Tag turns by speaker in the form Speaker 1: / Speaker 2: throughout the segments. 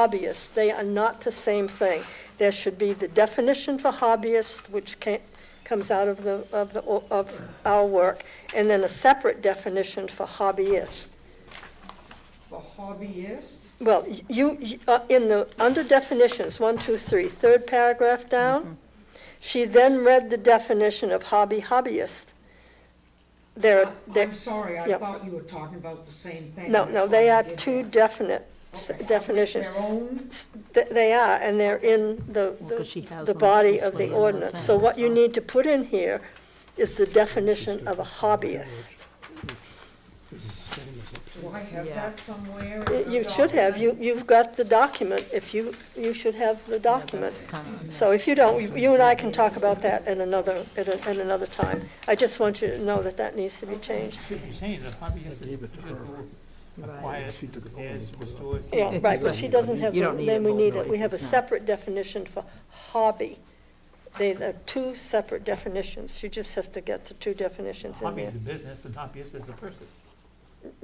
Speaker 1: hobbyist, they are not the same thing. There should be the definition for hobbyist, which ca- comes out of the, of the, of our work, and then a separate definition for hobbyist.
Speaker 2: For hobbyists,
Speaker 1: Well, y- you, y- uh, in the, under definitions, one, two, three, third paragraph down, she then read the definition of hobby hobbyist. There, are-
Speaker 2: I-
Speaker 1: there,
Speaker 2: I'm sorry, I
Speaker 1: yeah.
Speaker 2: thought you were talking about the same thing.
Speaker 1: no,
Speaker 2: That's
Speaker 1: no,
Speaker 2: why
Speaker 1: they
Speaker 2: I
Speaker 1: are
Speaker 2: did
Speaker 1: two
Speaker 2: that.
Speaker 1: definite s-
Speaker 2: Okay.
Speaker 1: definitions.
Speaker 2: Their own,
Speaker 1: S- th- They are, and they're in the,
Speaker 3: Well, 'cause she
Speaker 1: the-
Speaker 3: has
Speaker 1: the
Speaker 3: them
Speaker 1: body
Speaker 3: this
Speaker 1: of
Speaker 3: way
Speaker 1: the
Speaker 3: in the
Speaker 1: ordinance. So
Speaker 3: thing,
Speaker 1: what you
Speaker 3: so-
Speaker 1: need to put in here is the definition of a hobbyist.
Speaker 2: do I have
Speaker 3: Yeah.
Speaker 2: that somewhere?
Speaker 1: Y-
Speaker 2: in the
Speaker 1: You should have,
Speaker 2: document?
Speaker 1: you, you've got the document, if you, you should have the document.
Speaker 3: that's kinda
Speaker 1: So if you don't, you- you and I can talk about that at another, at a- at another time. I just want you to know that that needs to be changed.
Speaker 4: You're saying the hobbyist is the people who acquires, repairs, restores.
Speaker 1: Yeah, right, but she doesn't have,
Speaker 3: You don't
Speaker 1: the-
Speaker 3: need
Speaker 1: then
Speaker 3: it
Speaker 1: we need
Speaker 3: both
Speaker 1: it, we have a
Speaker 3: ways, no.
Speaker 1: separate definition for hobby. They are two separate definitions, she just has to get the two definitions in
Speaker 4: Hobby
Speaker 1: there.
Speaker 4: is a business and hobbyist is a person.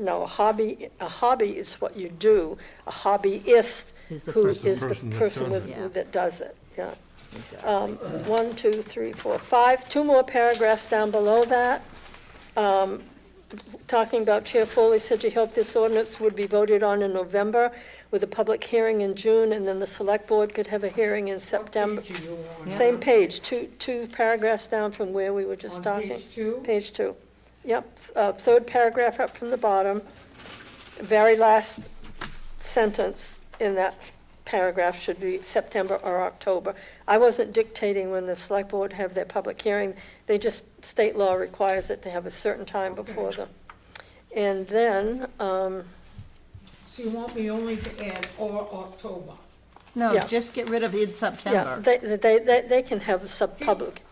Speaker 1: No, a hobby, a hobby is what you do, a hobbyist
Speaker 3: Is the
Speaker 1: who
Speaker 3: person-
Speaker 1: is the
Speaker 5: Person that
Speaker 1: person
Speaker 5: does
Speaker 1: with-
Speaker 3: it. Yeah.
Speaker 1: that does it, yeah.
Speaker 3: Exactly.
Speaker 1: um, one, two, three, four, five, two more paragraphs down below that. Um, Talking about Chair Foley said she hoped this ordinance would be voted on in November with a public hearing in June, and then the select board could have a hearing in September.
Speaker 2: What page are you on?
Speaker 1: Same page, two, two paragraphs down from where we were just
Speaker 2: On
Speaker 1: talking.
Speaker 2: page two?
Speaker 1: Page two. Yep, uh, third paragraph up from the bottom, very last sentence in that paragraph should be September or October. I wasn't dictating when the select board have their public hearing, they just, state law requires it to have a certain time before them. And then, um,
Speaker 2: So you want me only to add or October?
Speaker 3: No,
Speaker 1: Yeah.
Speaker 3: just get rid of in
Speaker 1: yeah,
Speaker 3: September.
Speaker 1: they, they, they, they can have the sub-public,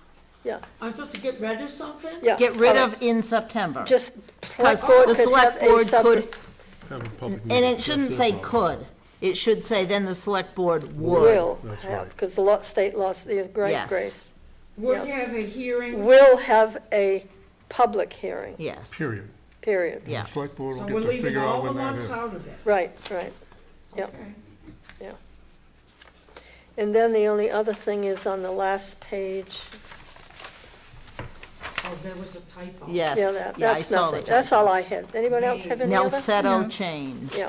Speaker 1: yeah,
Speaker 2: I'm supposed to get rid of something?
Speaker 1: yeah.
Speaker 3: Get rid
Speaker 1: all
Speaker 3: of in September.
Speaker 1: right. Just select
Speaker 3: Because
Speaker 1: board
Speaker 3: the
Speaker 1: could have
Speaker 3: select
Speaker 1: a
Speaker 3: board
Speaker 1: sub,
Speaker 3: could,
Speaker 5: Have a public
Speaker 3: and
Speaker 5: meeting.
Speaker 3: it shouldn't
Speaker 5: That's
Speaker 3: say
Speaker 5: their problem.
Speaker 3: could. It should say then the select board would.
Speaker 1: will
Speaker 5: That's
Speaker 1: have,
Speaker 5: right.
Speaker 1: because the law, state law, the great
Speaker 3: Yes.
Speaker 1: grace.
Speaker 2: Would
Speaker 1: Yeah.
Speaker 2: have a hearing,
Speaker 1: will have a public hearing,
Speaker 3: Yes,
Speaker 5: Period.
Speaker 1: period.
Speaker 3: yeah.
Speaker 5: The Select board
Speaker 2: so
Speaker 5: will
Speaker 2: we're
Speaker 5: get to
Speaker 2: leaving
Speaker 5: figure out
Speaker 2: all the
Speaker 5: when that
Speaker 2: months
Speaker 5: is.
Speaker 2: out of it.
Speaker 1: Right, right. Yep.
Speaker 2: Okay.
Speaker 1: And then the only other thing is on the last page.
Speaker 2: Oh, there was a typo.
Speaker 3: Yes,
Speaker 1: Yeah, that-
Speaker 3: yeah, I
Speaker 1: that's
Speaker 3: saw the
Speaker 1: nothing. That's all I had. Anybody else have any other?
Speaker 3: Nelsetto change.
Speaker 1: Yeah.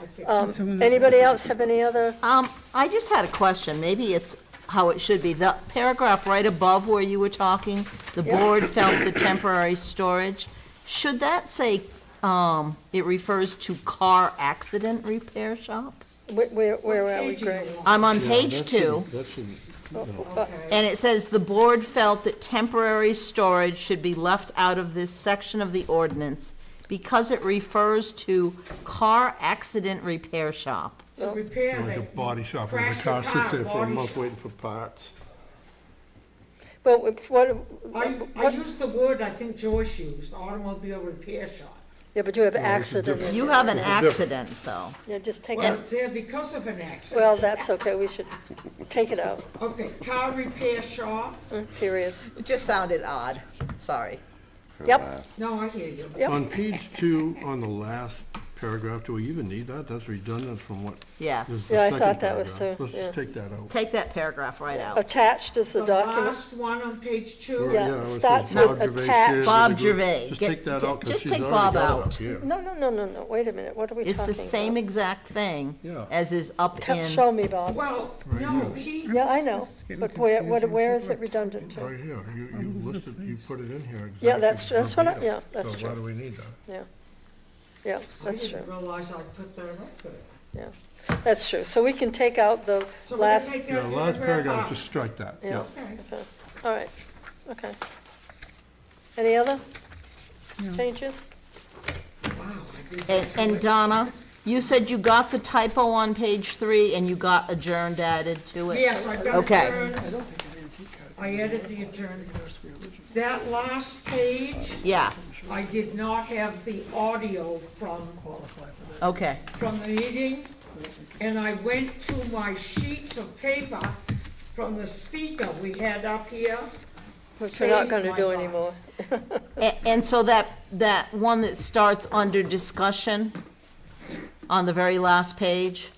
Speaker 2: I fixed it.
Speaker 1: Um, Anybody else have any other?
Speaker 3: Um, I just had a question, maybe it's how it should be, the paragraph right above where you were talking, the
Speaker 1: Yeah.
Speaker 3: board felt the temporary storage, should that say, um, it refers to car accident repair shop?
Speaker 1: Where, where- where are we,
Speaker 2: Page you
Speaker 1: Grace? Uh,
Speaker 2: on?
Speaker 3: I'm on page two,
Speaker 2: Okay.
Speaker 3: and it says, "The board felt that temporary storage should be left out of this section of the ordinance because it refers to car accident repair shop."
Speaker 2: It's a repair
Speaker 5: Like a
Speaker 2: that.
Speaker 5: body shop, where
Speaker 2: Crash
Speaker 5: the car sits there for a
Speaker 2: body
Speaker 5: month
Speaker 2: shop.
Speaker 5: waiting for parts.
Speaker 1: Well, it's what,
Speaker 2: I, I
Speaker 1: what,
Speaker 2: used the word I think Joyce used, automobile repair shop.
Speaker 1: yeah, but you have accident. in
Speaker 3: You
Speaker 1: there.
Speaker 3: have an
Speaker 5: It's different.
Speaker 3: accident, though.
Speaker 1: Yeah, just take
Speaker 2: Well,
Speaker 1: it.
Speaker 2: it's there because of an accident.
Speaker 1: Well, that's okay. We should take it out,
Speaker 2: Okay, car repair shop,
Speaker 1: Mm, period.
Speaker 3: It just sounded odd, sorry.
Speaker 1: Yep,
Speaker 2: no, I hear you.
Speaker 1: Yep.
Speaker 5: On page two, on the last paragraph, do we even need that? That's redundant from what is
Speaker 3: Yes.
Speaker 5: the
Speaker 1: Yeah, I
Speaker 5: second
Speaker 1: thought that was
Speaker 5: paragraph.
Speaker 1: too,
Speaker 5: Let's just
Speaker 1: yeah.
Speaker 5: take that out.
Speaker 3: Take that paragraph right out.
Speaker 1: attached is the
Speaker 2: The
Speaker 1: document.
Speaker 2: last one on page
Speaker 5: Or,
Speaker 2: two.
Speaker 1: Yeah,
Speaker 5: it was
Speaker 1: starts
Speaker 5: Bob
Speaker 1: with
Speaker 5: Gervais did,
Speaker 1: attached.
Speaker 5: there's a
Speaker 3: Bob
Speaker 5: group-
Speaker 3: Gervais.
Speaker 5: Just
Speaker 3: Get-
Speaker 5: take that out,
Speaker 3: ju-
Speaker 5: because
Speaker 3: just
Speaker 5: she's
Speaker 3: take
Speaker 5: already
Speaker 3: Bob
Speaker 5: got it up
Speaker 3: out.
Speaker 5: here.
Speaker 1: No, no, no, no, no, wait a minute, what are we talking
Speaker 3: It's
Speaker 1: about?
Speaker 3: the same exact thing
Speaker 5: Yeah.
Speaker 3: as is up
Speaker 1: Tell-
Speaker 3: in,
Speaker 1: Show me, Bob.
Speaker 2: Well, no, he,
Speaker 1: Yeah, I know, but where, what- where is it redundant to?
Speaker 5: Right here, you, you listed, you put it in here exactly.
Speaker 1: Yeah, that's tr- that's what I-
Speaker 5: verbatim.
Speaker 1: yeah, that's
Speaker 5: So why
Speaker 1: true.
Speaker 5: do we need that?
Speaker 1: Yeah,
Speaker 2: I
Speaker 1: that's
Speaker 2: didn't
Speaker 1: true,
Speaker 2: realize I put that up there.
Speaker 1: that's true, so we can take out the
Speaker 2: So we're gonna
Speaker 1: last,
Speaker 2: take
Speaker 5: Yeah,
Speaker 2: that
Speaker 5: last paragraph,
Speaker 2: paragraph
Speaker 5: just strike that,
Speaker 1: yeah,
Speaker 5: yeah.
Speaker 2: out.
Speaker 1: okay, all right, okay. Any other changes?
Speaker 2: Okay, wow, I did
Speaker 3: and, and Donna, you said you got the typo on page three and you got adjourned added to it?
Speaker 2: Yes, I've got
Speaker 3: Okay.
Speaker 2: adjourned. I added the adjourned. That last page,
Speaker 3: Yeah,
Speaker 2: I did not have the audio from,
Speaker 3: okay.
Speaker 2: from the meeting, and I went to my sheets of paper from the speaker we had up here.
Speaker 1: Which we're not
Speaker 2: Saving
Speaker 1: gonna
Speaker 2: my
Speaker 1: do
Speaker 2: life.
Speaker 1: anymore,
Speaker 3: A- And so that, that one that starts under discussion on the very last page,